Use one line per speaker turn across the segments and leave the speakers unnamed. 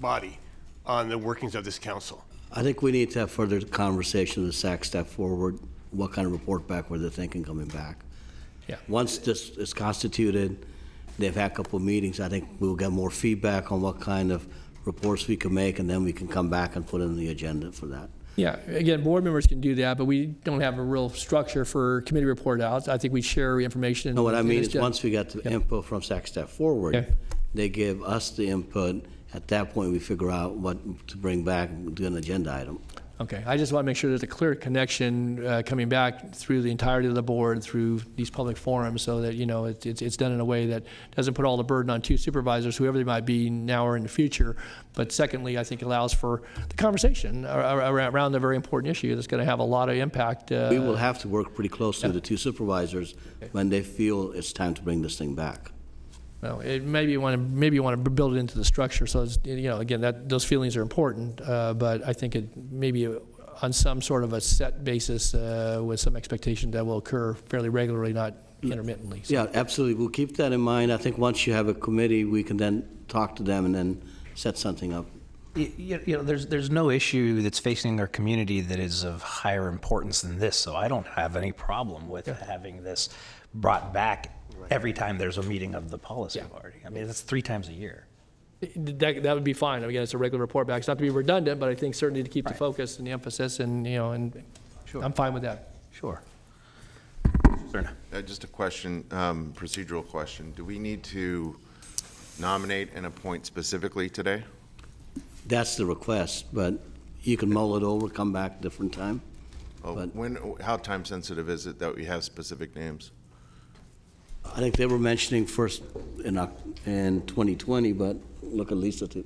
body on the workings of this council.
I think we need to have further conversation with SAC step forward, what kind of report back were they thinking coming back.
Yeah.
Once this is constituted, they've had a couple of meetings, I think we'll get more feedback on what kind of reports we can make, and then we can come back and put in the agenda for that.
Yeah, again, board members can do that, but we don't have a real structure for committee report outs. I think we share information.
No, Oh, what I
and
mean
it's
is,
just-
once we got the input from SAC step forward,
Okay.
they give us the input, at that point, we figure out what to bring back, do an agenda item.
Okay, I just want to make sure there's a clear connection uh, coming back through the entirety of the board, through these public forums, so that, you know, it- it's it's done in a way that doesn't put all the burden on two supervisors, whoever they might be now or in the future. But secondly, I think allows for the conversation ar- ar- around the very important issue that's going to have a lot of impact. uh,
We will have to work pretty closely with the two supervisors when they feel it's time to bring this thing back.
No, it, maybe you want to maybe you want to build it into the structure. So it's, you know, again, that those feelings are important, uh, but I think it maybe on some sort of a set basis uh, with some expectation that will occur fairly regularly, not intermittently. So,
Yeah, absolutely. We'll keep that in mind. I think once you have a committee, we can then talk to them and then set something up.
Y- You, you know, there's there's no issue that's facing our community that is of higher importance than this. So I don't have any problem with having this brought back every time there's a meeting of the policy party. I mean, that's three times a year.
That, that would be fine. Again, it's a regular report back. It's not to be redundant, but I think certainly to keep the focus and the emphasis, and you know, and I'm fine with that.
Sure.
Uh, Just a question, um, procedural question. Do we need to nominate and appoint specifically today?
That's the request, but you can mull it over, come back different time.
Oh,
But-
When, how time sensitive is it that we have specific names?
I think they were mentioning first in, Oc- in 2020, but look at Lisa too.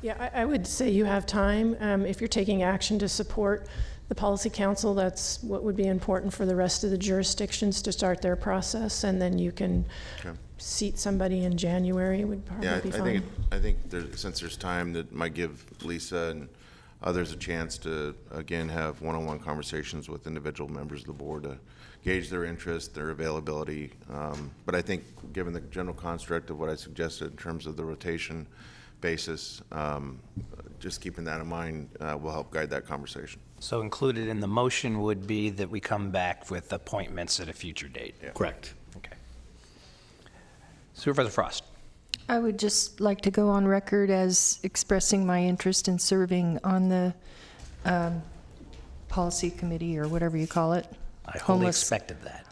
Yeah, I, I would say you have time. Um, if you're taking action to support the policy council, that's what would be important for the rest of the jurisdictions to start their process, and then you can
Okay.
seat somebody in January would
Yeah, I
probably
I
be
think, it-
fine.
I think there, since there's time, that might give Lisa and others a chance to, again, have one-on-one conversations with individual members of the board to gauge their interest, their availability. Um, But I think, given the general construct of what I suggested in terms of the rotation basis, um, just keeping that in mind uh, will help guide that conversation.
So included in the motion would be that we come back with appointments at a future date.
Correct.
Okay. Supervisor Frost.
I would just like to go on record as expressing my interest in serving on the um, policy committee or whatever you call it.
I wholly
Homeless-
expected that.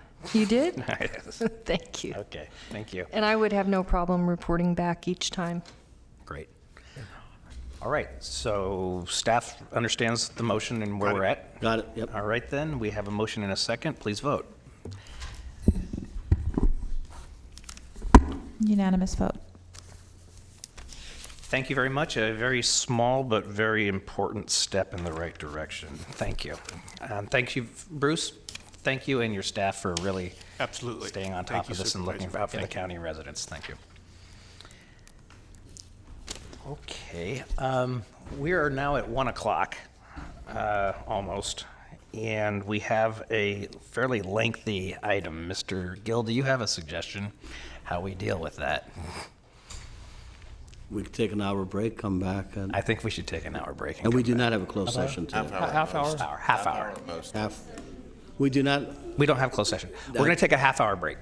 You did?
Yes.
Thank you.
Okay, thank you.
And I would have no problem reporting back each time.
Great. All right, so staff understands the motion and where we're at?
Got it, yep.
All right, then, we have a motion and a second. Please vote.
Unanimous vote.
Thank you very much. A very small but very important step in the right direction. Thank you. Um, Thank you, Bruce. Thank you and your staff for really
Absolutely.
staying on
Thank
top
you,
of this and
Supervisor.
looking out for the
Thank you.
county residents. Thank you. Okay, um, we are now at 1 o'clock, uh, almost, and we have a fairly lengthy item. Mr. Gill, do you have a suggestion how we deal with that?
We can take an hour break, come back, and,
I think we should take an hour break. and
and we
come
do not have a closed session today.
Half hour.
back. Hour, half hour.
Half, we do not,
We don't have closed session. We're going to take a half hour break.